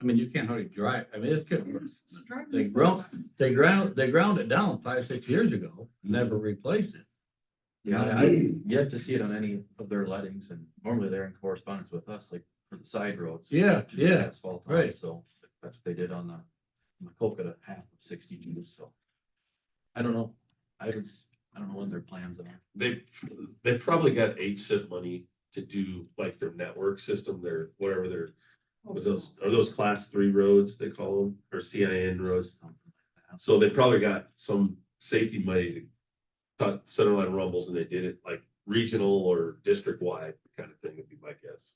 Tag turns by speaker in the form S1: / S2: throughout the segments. S1: I mean, you can't hardly dry, I mean, it's good.
S2: It's a driving
S1: They
S2: lesson.
S1: ground, they ground, they ground it down five, six years ago, never replaced it.
S3: You know, I, you have to see it on any of their lettings and normally they're in correspondence with us, like for the side roads.
S1: Yeah,
S3: to do
S1: yeah,
S3: Asphalt, on,
S1: right.
S3: so that's what they did on the, on the Coca to half of sixty-two, so. I don't know, I haven't, s- I don't know when their plans are.
S4: they, they probably got HSIP money to do like their network system, their, whatever their, was those, are those class three roads they call them, or CIN roads? So they probably got some safety money to cut centerline rumbles and they did it like regional or district wide kind of thing would be my guess.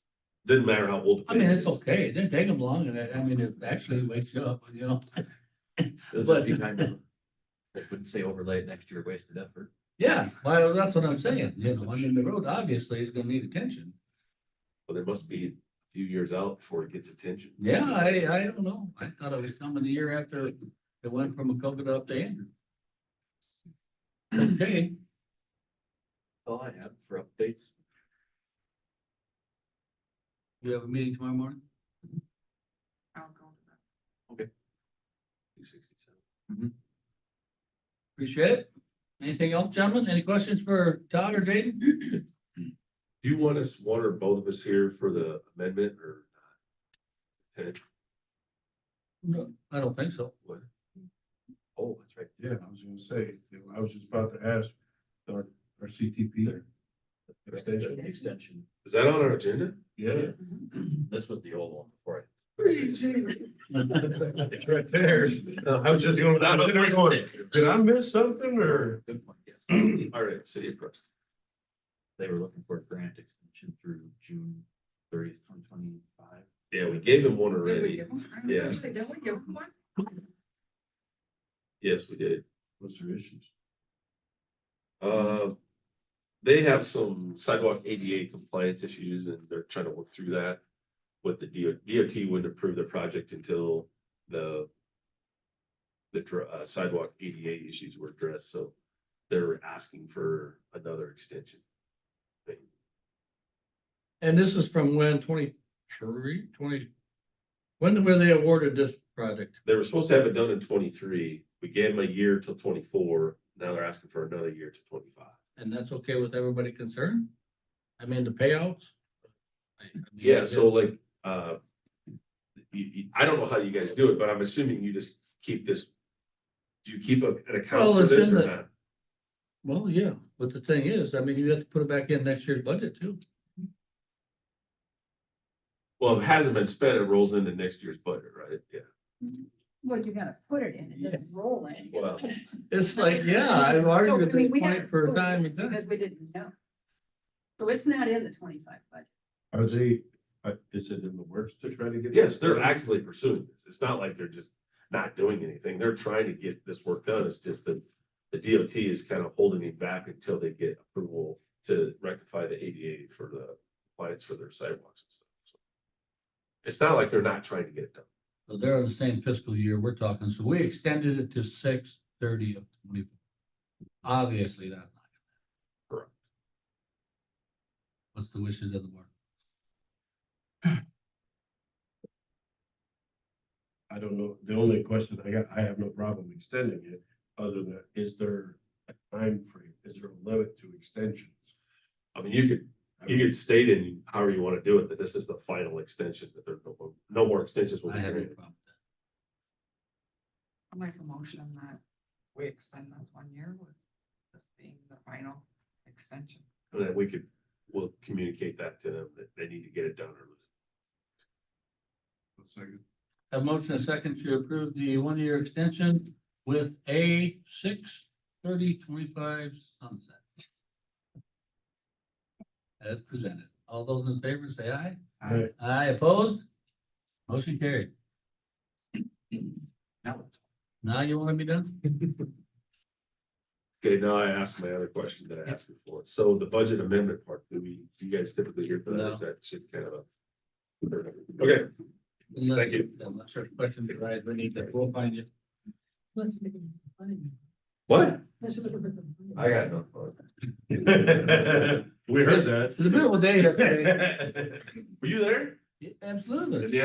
S4: Didn't matter how old. the
S1: I mean,
S4: pavement
S1: it's
S4: is.
S1: okay, it didn't take them long, and I, I mean, it actually wakes you up, you know?
S3: It'll
S1: But-
S3: just be time to- They wouldn't say overlay it next year, wasted effort.
S1: Yeah, well, that's what I'm saying, you know, I mean, the road obviously is gonna need attention.
S4: But they must be a few years out before it gets attention.
S1: Yeah, I, I don't know, I thought it was coming the year after it went from a coconut up to Andrew. Okay,
S3: All I have for updates.
S1: we have a meeting tomorrow morning?
S2: I'll go to that.
S4: Two sixty-seven.
S1: Appreciate it. Anything else, gentlemen? Any questions for Todd or Jaden?
S4: Do you want us, one or both of us here for the amendment or? not? Okay,
S1: No, I don't think so.
S4: what?
S3: Oh, that's right.
S5: Yeah, I was gonna say, you know, I was just about to ask, our, our CTP.
S3: The Extension.
S4: Is that on our agenda?
S5: Yeah,
S3: This was the old one before I
S5: it's right there. I was just going, I was sitting there going, did I miss something or?
S3: Good point, yes.
S4: All right, city of Preston.
S3: They were looking for a grant extension through June thirtieth, twenty twenty-five.
S4: Yeah, we gave him one
S2: Did we
S4: already.
S2: give them? I was
S4: Yeah.
S2: gonna say, Did we give them one?
S4: Yes, we did.
S5: What's their issues?
S4: Uh, they have some sidewalk ADA compliance issues and they're trying to work through that. With the DOT, DOT wouldn't approve the project until the the dr- uh, sidewalk ADA issues were addressed, so they're asking for another extension.
S1: And this is from when, 23, 20? When were they awarded this project?
S4: They were supposed to have it done in twenty-three. We gave them a year till twenty-four. Now they're asking for another year to twenty-five.
S1: And that's okay with everybody concerned? I mean, the payouts? I- I mean,
S4: Yeah, so like, uh. You, you, I don't know how you guys do it, but I'm assuming you just keep this. Do you keep a- an account
S1: Well,
S4: for
S1: it's
S4: this
S1: in
S4: or
S1: the-
S4: not?
S1: Well, yeah, but the thing is, I mean, you have to put it back in next year's budget too.
S4: Well, if it hasn't been spent, it rolls into next year's budget, right? Yeah.
S6: Well, you gotta put it in, it doesn't roll in.
S4: Well,
S1: It's like, yeah, I've
S6: So,
S1: argued
S6: I
S1: with
S6: mean,
S1: this
S6: we
S1: point
S6: haven't
S1: for
S6: approved
S1: time
S6: it
S1: and time.
S6: Because we didn't know. So it's not in the twenty-five budget.
S5: Are they, uh, is it in the works to try to get?
S4: yes, they're actively pursuing this. It's not like they're just not doing anything. They're trying to get this work done. It's just that. The DOT is kind of holding it back until they get approval to rectify the ADA for the compliance for their sidewalks and stuff. So It's not like they're not trying to get it done.
S1: So they're on the same fiscal year we're talking, so we extended it to six thirty of twenty. Obviously, that's not. gonna happen.
S4: Correct.
S1: What's the wishes of the board?
S5: I don't know, the only question I got, I have no problem extending it, other than, is there a time frame? Is there a limit to extensions?
S4: I mean, you could
S5: I
S4: You
S5: mean,
S4: could state in however you want to do it, that this is the final extension, that there, no more- no more extensions will
S1: I
S4: be
S1: have no
S4: granted.
S1: problem with that.
S2: I'll make a motion that we extend this one year with this being the final extension.
S4: And then we could, we'll communicate that to them, that they need to get it done or lose.
S5: one second.
S1: Have motion and second to approve the one-year extension with a six thirty twenty-five sunset. As presented. All those in favor say aye.
S5: I-
S1: Aye opposed? Motion carried.
S3: now it's
S1: Now you want to be done?
S4: Okay, now I ask my other question that I asked before. So the budget amendment part, do we, do you guys typically hear for that?
S1: No.
S4: Is that should kind of a? Okay, Thank you.
S1: Unless there's questions, right, we need to, we'll find you.
S4: what? I got no.
S5: We heard that.
S1: It's a beautiful day yesterday.
S4: Were you there?
S1: Absolutely.
S4: Yeah,